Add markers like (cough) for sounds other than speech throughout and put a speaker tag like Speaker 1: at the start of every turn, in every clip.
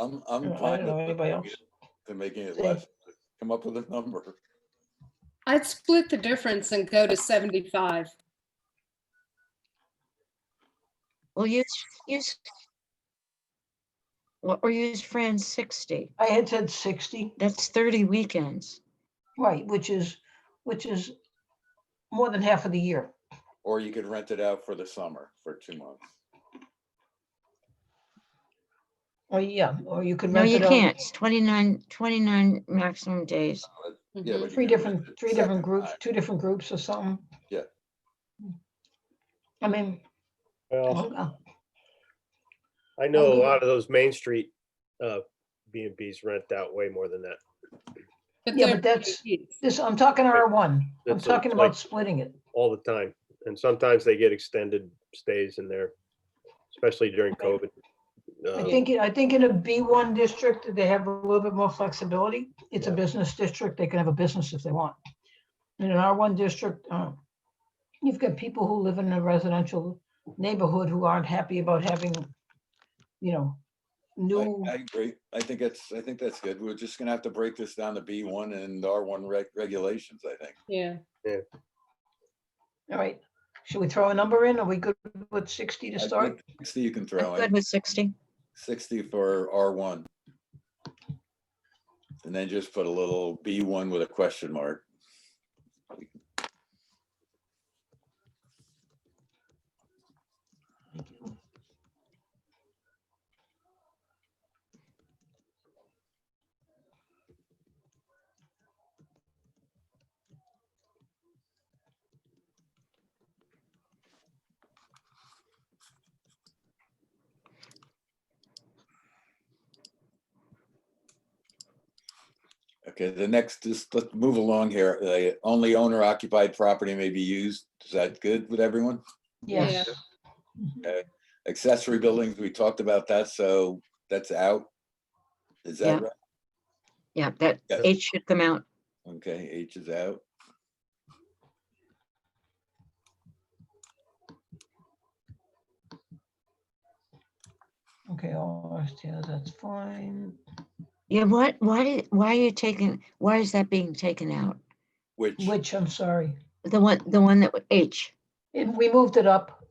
Speaker 1: I'm, I'm
Speaker 2: Yeah, I
Speaker 1: fine
Speaker 2: don't know anybody else.
Speaker 1: with to making it
Speaker 2: Same.
Speaker 1: less, come up with a number.
Speaker 3: I'd split the difference and go to 75.
Speaker 4: Well, use, use. What, or use Fran's sixty,
Speaker 2: I had said sixty,
Speaker 4: that's thirty weekends.
Speaker 2: right, which is, which is more than half of the year.
Speaker 1: Or you could rent it out for the summer for two months.
Speaker 2: Or yeah, or you could
Speaker 4: No,
Speaker 2: rent
Speaker 4: you
Speaker 2: it out.
Speaker 4: can't, it's 29 29 maximum days.
Speaker 1: Yeah,
Speaker 3: Mhm.
Speaker 1: but you
Speaker 2: Mm-hmm. Three
Speaker 1: could rent
Speaker 2: different,
Speaker 1: it
Speaker 2: three
Speaker 1: second
Speaker 2: different groups,
Speaker 1: time.
Speaker 2: two different groups or something.
Speaker 1: Yeah.
Speaker 2: I mean, I
Speaker 4: Oh,
Speaker 5: Well,
Speaker 2: don't know.
Speaker 5: I know a
Speaker 2: I'll do
Speaker 5: lot of those Main Street uh B and Bs rent out way more than that.
Speaker 3: But
Speaker 2: Yeah,
Speaker 3: they're
Speaker 2: but that's-
Speaker 3: pretty huge.
Speaker 2: this, I'm talking R one, I'm
Speaker 5: That's a-
Speaker 2: talking
Speaker 5: like-
Speaker 2: about splitting it.
Speaker 5: all the time. And sometimes they get extended stays in there, especially during COVID.
Speaker 2: I
Speaker 5: Um,
Speaker 2: think, I think in a B one district, they have a little bit more flexibility. It's a
Speaker 5: Yeah.
Speaker 2: business district. They can have a business if they want. In an R one district, uh, you've got people who live in a residential neighborhood who aren't happy about having, you know, new,
Speaker 1: I, I agree. I think that's, I think that's good. We're just gonna have to break this down to B one and R one reg- regulations, I think.
Speaker 3: Yeah.
Speaker 2: all right. Should we throw a number in? Are we good with sixty to
Speaker 1: I think
Speaker 2: start?
Speaker 1: Sixty you can
Speaker 4: I'm
Speaker 1: throw
Speaker 4: good
Speaker 1: in,
Speaker 4: with sixty.
Speaker 1: sixty for R one. And then just put a little B one with a question mark. Okay, the next is, let's move along here. The only owner occupied property may be used. Is that good with everyone?
Speaker 2: Yes.
Speaker 1: Accessory buildings, we talked about that, so that's out. Is
Speaker 4: Yeah.
Speaker 1: that right?
Speaker 4: Yeah, that
Speaker 1: Yeah.
Speaker 4: eight should come out.
Speaker 1: Okay, H is out.
Speaker 2: Okay, all RSTOs, that's fine.
Speaker 4: Yeah, what, why, did- why are you taking, why is that being taken out?
Speaker 1: Which,
Speaker 2: Which, I'm sorry.
Speaker 4: The one, the one that, wa- H.
Speaker 2: And we moved it up.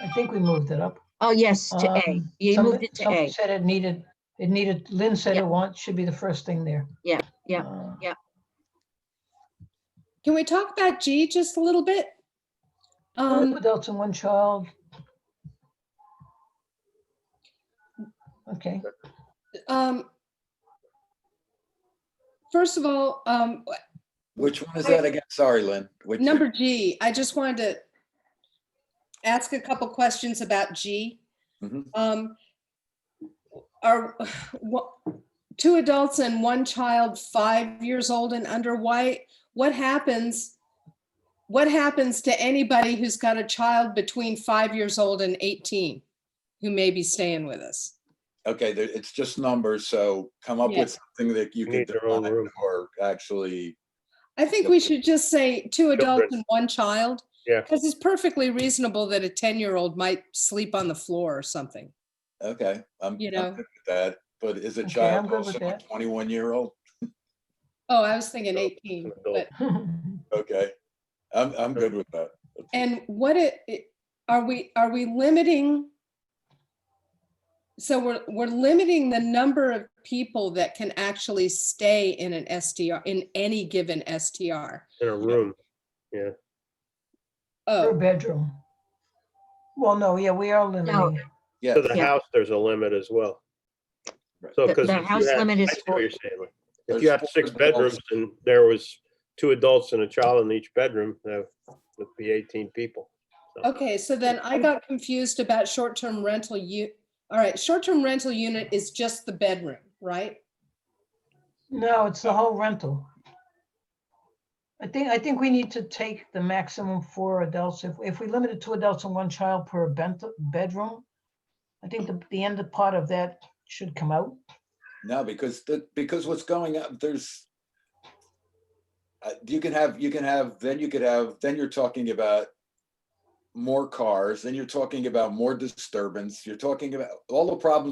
Speaker 2: I think we moved it up.
Speaker 4: Oh, yes, to A.
Speaker 2: Um,
Speaker 4: You
Speaker 2: Somebody
Speaker 4: moved it to
Speaker 2: somebody
Speaker 4: A.
Speaker 2: Said it needed, it needed, Lynn said
Speaker 4: Yeah.
Speaker 2: it wants, should be the first thing there.
Speaker 4: Yeah, yeah,
Speaker 2: Uh,
Speaker 3: Can we talk about G just a little bit?
Speaker 2: Two
Speaker 3: Um,
Speaker 2: adults and one child. Okay, (laughs)
Speaker 3: um, First of all, um,
Speaker 1: which one is
Speaker 3: I-
Speaker 1: that again? Sorry, Lynn. Which-
Speaker 3: Number G, I just wanted to ask a couple questions about G.
Speaker 5: Mm-hmm.
Speaker 1: Mhm.
Speaker 3: Um, Are, wha- two adults and one child, five years old and under, why, what happens? What happens to anybody who's got a child between five years old and 18 who may be staying with us?
Speaker 1: Okay, there- it's just numbers, so come up
Speaker 3: Yeah.
Speaker 1: with something that you
Speaker 5: They
Speaker 1: can
Speaker 5: need their own
Speaker 1: define
Speaker 5: room.
Speaker 1: or actually,
Speaker 3: I think we should just say two adults
Speaker 5: Children.
Speaker 3: and one child.
Speaker 5: Yeah.
Speaker 3: Because it's perfectly reasonable that a 10-year-old might sleep on the floor or something.
Speaker 1: okay, I'm, I'm
Speaker 3: You
Speaker 1: good
Speaker 3: know.
Speaker 1: with that, but is a
Speaker 2: Okay,
Speaker 1: child
Speaker 2: I'm good with
Speaker 1: also a
Speaker 2: that.
Speaker 1: twenty-one year old?
Speaker 3: Oh, I was thinking
Speaker 5: So,
Speaker 3: 18,
Speaker 5: an adult.
Speaker 3: but,
Speaker 1: Okay, I'm, I'm good with that.
Speaker 3: and what it, it- are we, are we limiting? So we're, we're limiting the number of people that can actually stay in an SDR, in any given STR.
Speaker 5: in a room.
Speaker 2: per
Speaker 3: Oh,
Speaker 2: bedroom. Well, no, yeah, we are limiting.
Speaker 1: Yeah,
Speaker 5: To the
Speaker 4: Yeah.
Speaker 5: house, there's a limit as well.
Speaker 1: Right.
Speaker 5: So,
Speaker 4: The-
Speaker 5: because.
Speaker 4: the house limit is four-
Speaker 5: If you have six bedrooms and there was two adults and a child in each bedroom, that would be eighteen people.
Speaker 3: okay, so then I got confused about short-term rental u, all right, short-term rental unit is just the bedroom, right?
Speaker 2: No, it's the whole rental. I think, I think we need to take the maximum for adults. If, if we limit it to adults and one child per bent, bedroom, I think the, the end part of that should come out.
Speaker 1: No, because the, because what's going up, there's. uh, You can have, you can have, then you could have, then you're talking about. More cars, then you're talking about more disturbance, you're talking about all the problems